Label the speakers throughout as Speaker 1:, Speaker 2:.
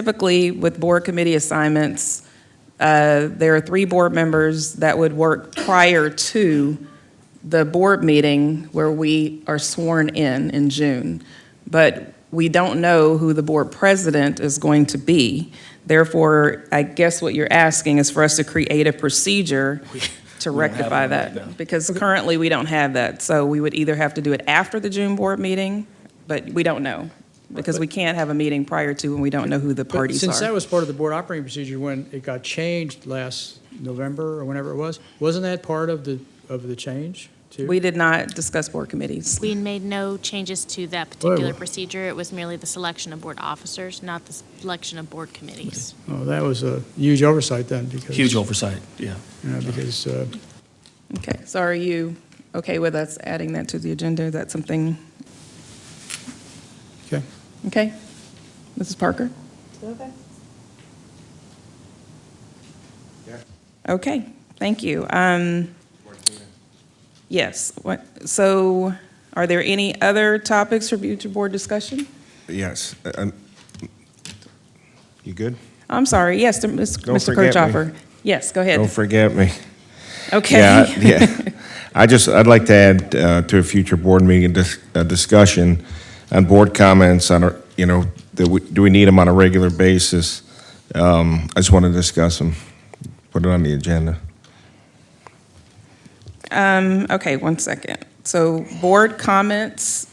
Speaker 1: typically with board committee assignments, uh, there are three board members that would work prior to the board meeting where we are sworn in in June. But we don't know who the board president is going to be. Therefore, I guess what you're asking is for us to create a procedure to
Speaker 2: We don't have
Speaker 1: rectify
Speaker 2: one right now.
Speaker 1: that. Because currently, we don't have that. So we would either have to do it after the June board meeting, but we don't know. Because we can't have a meeting prior to when we don't know who the
Speaker 3: But
Speaker 1: parties
Speaker 3: Since that
Speaker 1: are.
Speaker 3: was part of the board operating procedure when it got changed last November or whenever it was, wasn't that part of the, of the change too?
Speaker 1: We did not discuss board committees.
Speaker 4: We made no changes to that
Speaker 3: Whoa.
Speaker 4: particular procedure. It was merely the selection of board officers, not the selection of board committees.
Speaker 3: Oh, that was a huge oversight then because.
Speaker 2: Huge oversight, yeah.
Speaker 3: you know, Because, uh,
Speaker 1: Okay, so are you okay with us adding that to the agenda? Is that something,
Speaker 3: okay.
Speaker 1: okay? Mrs. Parker? Okay, thank you. Um, Yes, what, so are there any other topics for future board discussion?
Speaker 5: Yes. uh, um, You good?
Speaker 1: I'm sorry, yes, to Ms.
Speaker 5: Don't
Speaker 1: Mr.
Speaker 5: forget me.
Speaker 1: Kirchhoffer. Yes, go
Speaker 5: Don't
Speaker 1: ahead.
Speaker 5: forget me. Yeah,
Speaker 1: Okay.
Speaker 5: yeah. I just, I'd like to add uh, to a future board meeting dis- uh, discussion on board comments on, our- you know, that we- do we need them on a regular basis? Um, I just want to discuss them, put it on the agenda.
Speaker 1: Um, Okay, one second. So board comments,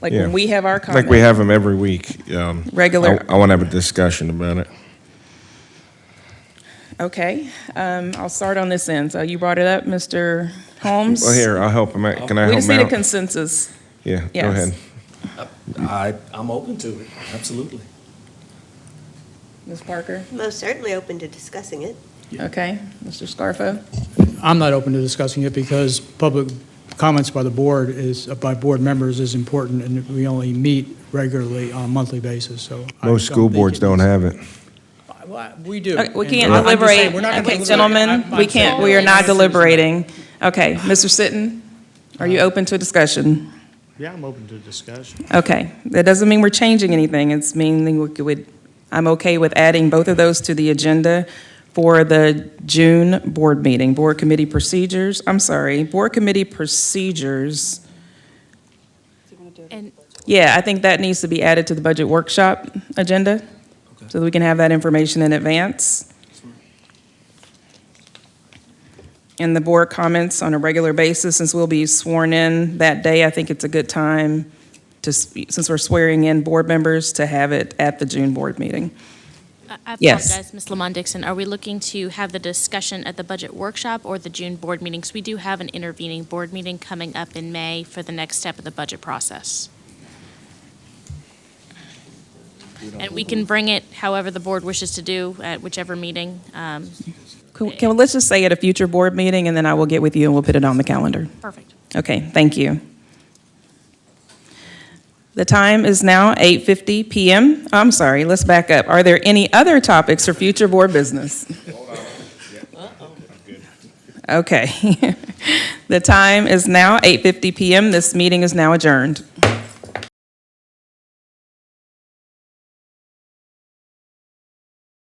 Speaker 1: like
Speaker 5: Yeah.
Speaker 1: when we have our comments.
Speaker 5: Like we have them every week. um,
Speaker 1: Regular-
Speaker 5: I want to have a discussion about it.
Speaker 1: Okay, um, I'll start on this end. So you brought it up, Mr. Holmes?
Speaker 5: Well, here, I'll help them out. Can I
Speaker 1: We
Speaker 5: help
Speaker 1: just
Speaker 5: them
Speaker 1: need a
Speaker 5: out?
Speaker 1: consensus.
Speaker 5: Yeah, go
Speaker 1: Yes.
Speaker 5: ahead.
Speaker 2: I, I'm open to it, absolutely.
Speaker 1: Ms. Parker?
Speaker 6: Most certainly open to discussing it.
Speaker 1: Okay, Mr. Scarfo?
Speaker 3: I'm not open to discussing it because public comments by the board is, by board members is important and we only meet regularly on a monthly basis, so. I
Speaker 5: Most
Speaker 3: don't
Speaker 5: school
Speaker 3: think
Speaker 5: boards
Speaker 3: it
Speaker 5: don't
Speaker 3: needs-
Speaker 5: have it.
Speaker 3: Well, I- We do.
Speaker 1: Okay, Uh, We
Speaker 3: And
Speaker 1: can't
Speaker 3: I'm just saying,
Speaker 1: deliberate,
Speaker 3: we're not gonna
Speaker 1: Okay,
Speaker 3: deliberate.
Speaker 1: gentlemen,
Speaker 3: I'm-
Speaker 1: we
Speaker 3: I'm
Speaker 1: can't,
Speaker 3: sorry.
Speaker 1: we are not deliberating. Okay, Mr. Sitten, are
Speaker 3: Uh-huh.
Speaker 1: you open to a discussion?
Speaker 7: Yeah, I'm open to discussion.
Speaker 1: Okay, that doesn't mean we're changing anything, it's meaning we could, I'm okay with adding both of those to the agenda for the June board meeting, board committee procedures, I'm sorry, board committee procedures.
Speaker 4: And
Speaker 1: Yeah, I think that needs to be added to the budget workshop agenda, so that we can have that information in advance. And the board comments on a regular basis, since we'll be sworn in that day, I think it's a good time to, s- since we're swearing in board members, to have it at the June board meeting.
Speaker 4: I I
Speaker 1: Yes.
Speaker 4: apologize, Ms. Lamont Dixon, are we looking to have the discussion at the budget workshop or the June board meetings? We do have an intervening board meeting coming up in May for the next step of the budget process. And we can bring it however the board wishes to do at whichever meeting. Um,
Speaker 1: Can, can- let's just say at a future board meeting, and then I will get with you and we'll put it on the calendar.
Speaker 4: Perfect.
Speaker 1: Okay, thank you. The time is now 8:50 PM. I'm sorry, let's back up. Are there any other topics for future board business? Okay. The time is now 8:50 PM. This meeting is now adjourned.